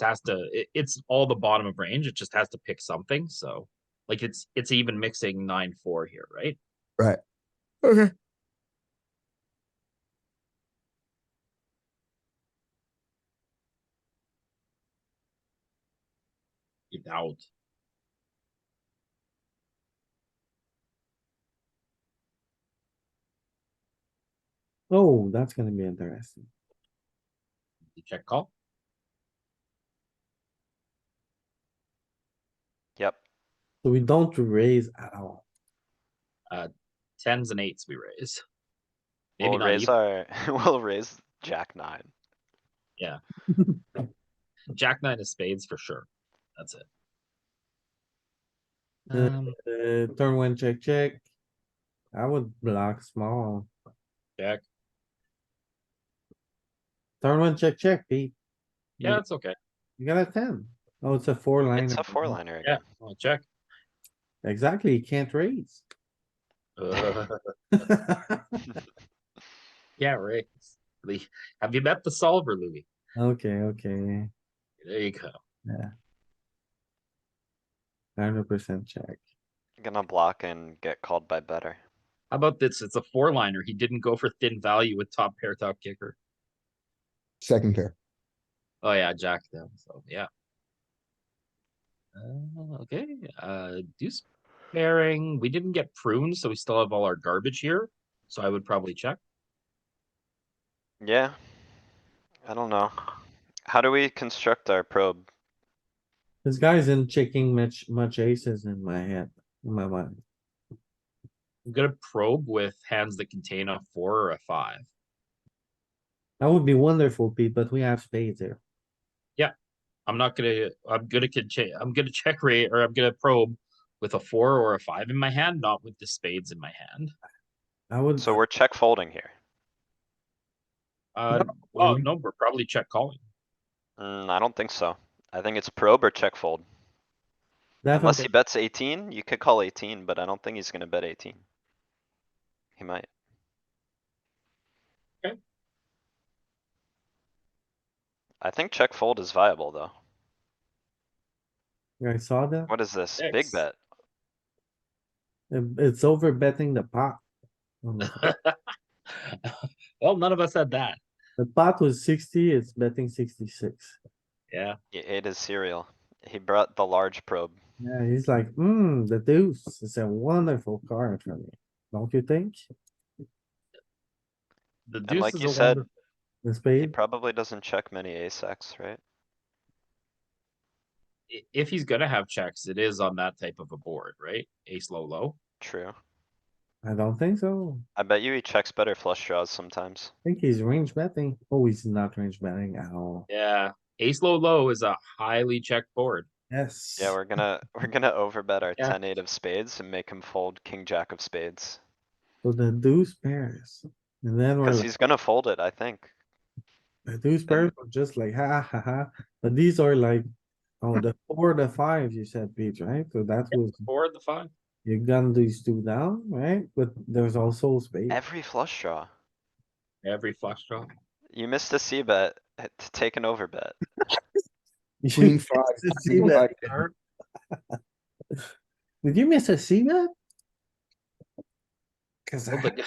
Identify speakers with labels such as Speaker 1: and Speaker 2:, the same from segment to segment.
Speaker 1: has to. It, it's all the bottom of range. It just has to pick something. So, like it's it's even mixing nine four here, right?
Speaker 2: Okay.
Speaker 1: You doubt.
Speaker 2: Oh, that's gonna be interesting.
Speaker 1: You check call.
Speaker 3: Yep,
Speaker 2: So we don't raise at all.
Speaker 1: Tens and eights we raise. Maybe
Speaker 3: we'll
Speaker 1: not
Speaker 3: raise
Speaker 1: even.
Speaker 3: our, we'll raise jack nine.
Speaker 1: Jack nine of spades for sure. That's it.
Speaker 2: Uh,
Speaker 1: Um,
Speaker 2: Uh, turn one, check, check. I would block small.
Speaker 1: Jack.
Speaker 2: Turn one, check, check, Pete.
Speaker 1: Yeah, it's okay.
Speaker 2: You got a ten. Oh, it's a four line.
Speaker 3: It's a four liner
Speaker 1: Yeah,
Speaker 3: again.
Speaker 1: I'll check.
Speaker 2: Exactly, you can't raise.
Speaker 1: Uh,
Speaker 2: Okay,
Speaker 1: yeah, right. The- Have you met the solver, Louis?
Speaker 2: okay,
Speaker 1: There you go.
Speaker 2: hundred percent check.
Speaker 3: Gonna block and get called by better.
Speaker 1: How about this? It's a four liner. He didn't go for thin value with top pair, top kicker.
Speaker 4: Second pair.
Speaker 1: Oh yeah, Jack them. So yeah. Uh, okay, uh, deuce pairing. We didn't get prunes, so we still have all our garbage here. So I would probably check.
Speaker 3: Yeah. I don't know. How do we construct our probe?
Speaker 2: This guy's in checking much, much aces in my head, in my mind.
Speaker 1: I'm gonna probe with hands that contain a four or a five.
Speaker 2: That would be wonderful, Pete, but we have spades here.
Speaker 1: I'm not gonna, I'm gonna, con- che- I'm gonna check rate or I'm gonna probe with a four or a five in my hand, not with the spades in my hand.
Speaker 2: I would,
Speaker 3: So we're check folding here.
Speaker 1: Uh, well,
Speaker 3: um
Speaker 2: we-
Speaker 1: no, we're probably check calling.
Speaker 3: Mm, I don't think so. I think it's probe or check fold. Unless he
Speaker 2: definitely,
Speaker 3: bets eighteen, you could call eighteen, but I don't think he's gonna bet eighteen. He might.
Speaker 1: Okay.
Speaker 3: I think check fold is viable, though.
Speaker 2: I saw that.
Speaker 3: What is this? Big
Speaker 1: Six.
Speaker 3: bet.
Speaker 2: It- It's over betting the pot. Um, on the flop.
Speaker 1: Well, none of us had that.
Speaker 2: The pot was sixty, it's betting sixty-six.
Speaker 1: Yeah,
Speaker 3: He ate his cereal. He brought the large probe.
Speaker 2: Yeah, he's like, hmm, the deuce is a wonderful card for me, don't you think?
Speaker 1: the
Speaker 3: And
Speaker 1: deuce
Speaker 3: like you
Speaker 1: is a
Speaker 3: said,
Speaker 1: wonder.
Speaker 2: The
Speaker 3: he
Speaker 2: spade,
Speaker 3: probably doesn't check many ace X, right?
Speaker 1: i- If he's gonna have checks, it is on that type of a board, right? Ace low, low.
Speaker 3: True.
Speaker 2: I don't think so.
Speaker 3: I bet you he checks better flush draws sometimes.
Speaker 2: I think he's range betting. Oh, he's not range betting at all.
Speaker 1: Yeah, ace low, low is a highly checked board.
Speaker 2: Yes.
Speaker 3: Yeah, we're gonna, we're gonna overbet our
Speaker 1: Yeah.
Speaker 3: ten eight of spades and make him fold king jack of spades.
Speaker 2: So the deuce pairs. And then we're,
Speaker 3: Cause
Speaker 2: like-
Speaker 3: he's gonna fold it, I think.
Speaker 2: the deuce pairs are just like, ha, ha, ha. But these are like, oh, the four, the five, you said, Pete, right? So that was,
Speaker 1: Four of the five.
Speaker 2: you gun these two down, right? But there's also spade.
Speaker 3: Every flush draw.
Speaker 1: Every flush draw.
Speaker 3: You missed a C bet uh, to take an overbet.
Speaker 2: You
Speaker 4: Queen
Speaker 2: missed
Speaker 4: five,
Speaker 2: a
Speaker 4: queen
Speaker 2: C-bet,
Speaker 4: five.
Speaker 2: Kurt. Did you miss a C bet? Cause
Speaker 1: Well,
Speaker 2: I-
Speaker 1: the, g-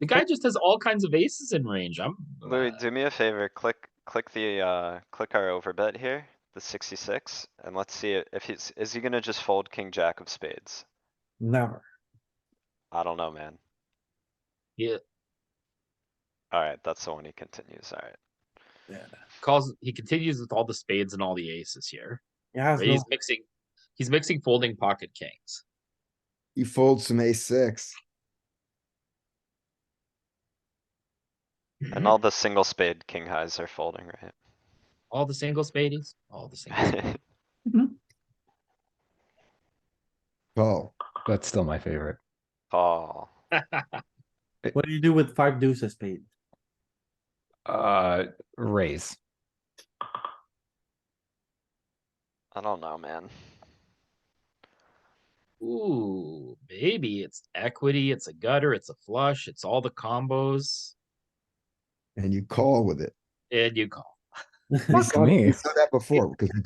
Speaker 1: the guy just has all kinds of aces in range. I'm
Speaker 3: Louis,
Speaker 1: uh,
Speaker 3: do me a favor, click, click the, uh, click our overbet here, the sixty-six, and let's see i- if he's, is he gonna just fold king jack of spades?
Speaker 2: never.
Speaker 3: I don't know, man.
Speaker 1: he
Speaker 3: Alright, that's the one he continues, alright.
Speaker 1: calls. He continues with all the spades and all the aces here.
Speaker 2: Yeah,
Speaker 1: right? He's mixing. He's mixing folding pocket kings.
Speaker 4: He folds some ace six.
Speaker 1: Mm-hmm.
Speaker 3: And all the single spade king highs are folding,
Speaker 1: All the single spades. All the single. spades.
Speaker 3: right?
Speaker 4: Call.
Speaker 5: That's still my favorite.
Speaker 3: Call.
Speaker 2: what do you do with five deuces spade?
Speaker 5: Uh, raise.
Speaker 3: I don't know, man.
Speaker 1: Ooh, maybe it's equity. It's a gutter. It's a flush. It's all the combos,
Speaker 4: And you call with it.
Speaker 1: and you call.
Speaker 5: Fuck me.
Speaker 4: Saw that before, because we